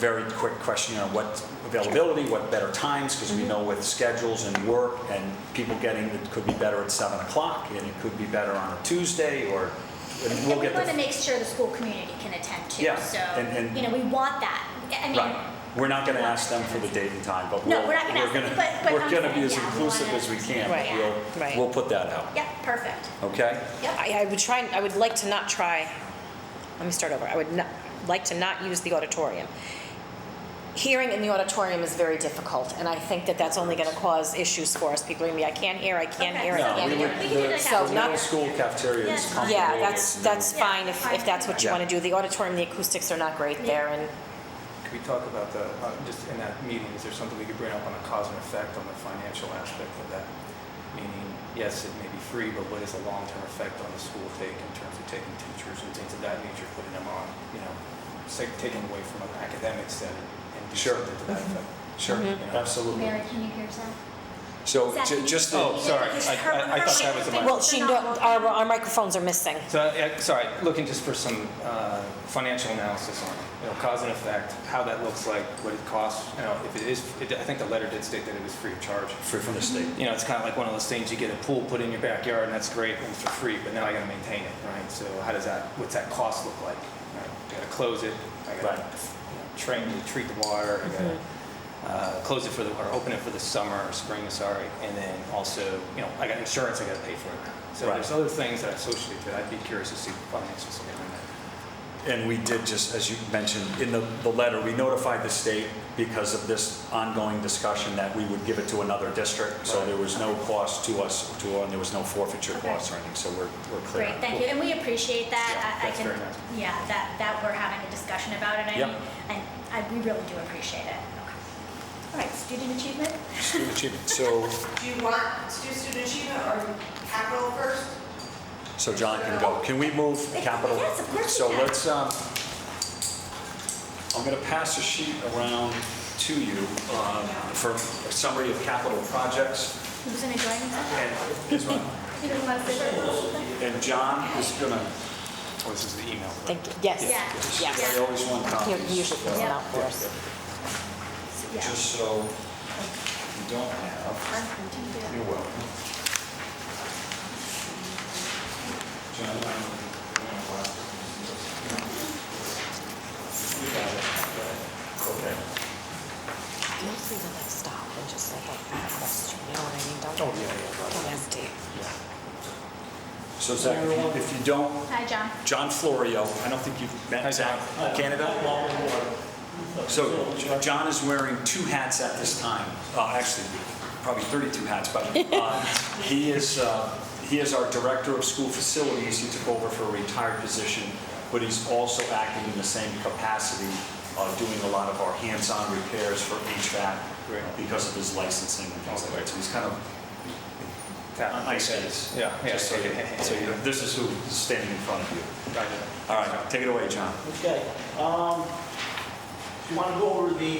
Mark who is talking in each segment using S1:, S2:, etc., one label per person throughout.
S1: very quick question on what availability, what better times, because
S2: Mm-hmm.
S1: we know with schedules and work and people getting, it could be better at 7 o'clock, and it could be better on a Tuesday, or, and we'll
S2: And we
S1: get the...
S2: want to make sure the school community can attend too.
S1: Yeah,
S2: So,
S1: and- and-
S2: you know, we want that. I mean,
S1: Right. We're not going to ask them for the date and time, but
S2: No,
S1: we'll-
S2: we're not gonna ask them,
S1: gonna-
S2: but- but
S1: We're
S2: I'm
S1: going to be
S2: saying,
S1: as
S2: yeah, we
S1: inclusive
S2: wanna-
S1: as we can. but
S2: Right,
S1: we'll-
S3: right.
S1: We'll put that out,
S2: yeah, perfect.
S1: okay?
S2: Yep.
S3: I, I would try, I would like to not try, let me start over, I would not, like to not use the auditorium. Hearing in the auditorium is very difficult, and I think that that's only gonna cause issues for us, people are gonna be, I can't hear, I can't
S2: Okay.
S3: hear, I
S2: Right,
S1: No,
S3: can't
S1: we
S3: hear.
S1: would-
S2: We can do
S1: the-
S2: like
S3: So
S1: The
S3: not-
S1: middle school cafeteria is
S2: Yeah.
S1: comfortable.
S3: Yeah, that's,
S1: It's
S3: that's
S2: Yeah,
S3: fine if, if that's what you
S1: Yeah.
S3: wanna do, the auditorium, the acoustics are not great there, and,
S4: Could we talk about the, uh, just in that meeting, is there something we could bring up on the cause and effect on the financial aspect of that? Meaning, yes, it may be free, but what is the long-term effect on the school take in terms of taking teachers and things of that nature, putting them on, you know, say, taking away from an academic setting and do
S1: Sure.
S4: something to that effect?
S1: Sure, absolutely.
S2: Mm-hmm. Mary, can you hear Zach?
S1: So
S2: Zach,
S1: ju-
S2: can you-
S1: just,
S4: Oh,
S1: the-
S4: sorry, I- I- I thought that was a mic.
S3: well, she, no- our, our microphones are missing.
S4: So, uh, sorry, looking just for some uh, financial analysis on, it. you know, cause and effect, how that looks like, what it costs, you know, if it is, it- I think the letter did state that it was free of charge.
S1: free from the state.
S4: you know, it's kind of like one of those things you get a pool put in your backyard and that's great and it's for free, but now I got to maintain it, right? So how does that, what's that cost look like? Right? Got to close it. I got
S1: Right.
S4: to train to treat the water. I got to uh, close it for the or open it for the summer or spring, sorry, and then also, you know, I got insurance. I got to pay for it. So
S1: Right.
S4: there's other things that I associate to it. I'd be curious to see the financials behind that.
S1: And we did just, as you mentioned, in the, the letter, we notified the state because of this ongoing discussion that we would give it to another district. So
S4: Right.
S1: there was no cost to us, to, and there was no forfeiture
S2: Okay.
S1: costs or anything, so we're, we're clear.
S2: Great, thank you, and we appreciate that.
S4: Yeah,
S2: I- I
S4: that's
S2: can,
S4: very nice.
S2: yeah, that, that we're having a discussion about it, I
S1: Yeah.
S2: mean, and I, we really do appreciate it. Okay. All right, student achievement?
S1: Student achievement. So,
S5: Do you want to do student achievement or capital first?
S1: so John can go. Can we move capital?
S2: Yes, of course we
S1: So
S2: can.
S1: let's, um, I'm gonna pass a sheet around to you, um, for a summary of capital projects.
S2: Who's gonna join us?
S1: And here's one.
S2: You don't want to sit there?
S1: And John is gonna,
S4: Oh, this is the email. right?
S3: Thank you, yes,
S2: Yeah.
S3: yes.
S1: I always want
S3: Here,
S1: copies.
S3: you usually fills it
S2: Yeah.
S3: out for us.
S2: Yeah.
S1: just so you don't have, you're welcome. John, I'm- You got it. Okay.
S3: Mostly when I stop and just like, I have a question, you know what I mean?
S1: Oh,
S3: Don't, don't hesitate.
S1: So Zach, if you- if you don't,
S2: Hi, John.
S1: John Florio, I don't think you've
S4: Hi,
S1: met Zach,
S4: John.
S1: Canada? So John is wearing two hats at this time, Uh, actually, probably 32 hats, but uh, he is, uh, he is our Director of School Facilities. He took over for a retired position, but he's also acting in the same capacity, uh, doing a lot of our hands-on repairs for HVAC
S4: Right.
S1: because of his licensing and things like that. So he's kind of
S4: Tap.
S1: on ice skates.
S4: Yeah, yeah.
S1: Just so you, so you, this is who's standing in front of you.
S4: Right.
S1: All right, take it away, John.
S6: Okay, um, you want to go over the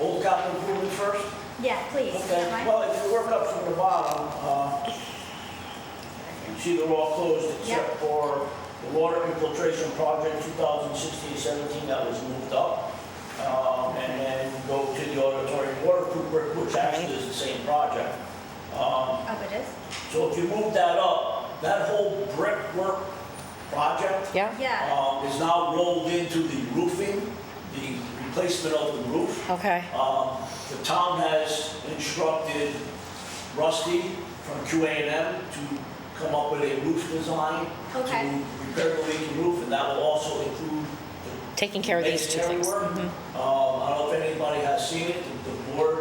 S6: old capital improvement first?
S2: Yeah, please. if you
S6: Okay,
S2: don't mind.
S6: well, if you work up from the bottom, uh, you see they're all closed
S2: Yeah.
S6: except for the water infiltration project 2016-17 that was moved up. Um, and then go to the auditorium water cooler, which actually is the same project. Um,
S2: Oh, it is?
S6: so if you move that up, that whole brickwork project
S3: Yeah?
S2: Yeah.
S6: um, is now rolled into the roofing, the replacement of the roof.
S3: Okay.
S6: Um, The town has instructed Rusty from QA&M to come up with a roof design
S2: Okay.
S6: to repair the leaking roof, and that will also include the
S3: Taking care of these two things. Mm-hmm.
S6: Masonry work. Um, I don't know if anybody has seen it, the- the board,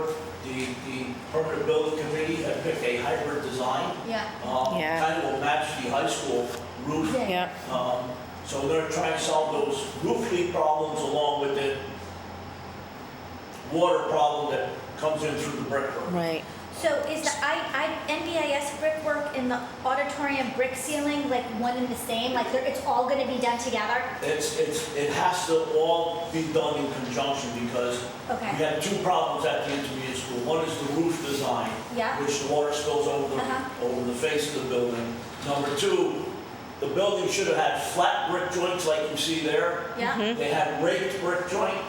S6: the, the permanent building committee had picked a hybrid design.
S2: Yeah.
S6: Um,
S3: Yeah.
S6: Kind of will match the high school roof.
S2: Yeah.
S3: Mm-hmm. Yeah,
S6: Um, so they're trying to solve those roof leak problems along with the water problem that comes in through the brickwork.
S3: right.
S2: So is the I, I, NBIS brickwork and the auditorium brick ceiling like one and the same? Like they're, it's all gonna be done together?
S6: It's, it's, it has to all be done in conjunction because
S2: Okay.
S6: We had two problems at the intermediate school. One is the roof design.
S2: Yeah.
S6: Which the water spills over the,
S2: Uh-huh.
S6: over the face of the building. Number two, The building should have had flat brick joints like you see there.
S2: Yeah.
S6: They had raked brick joint.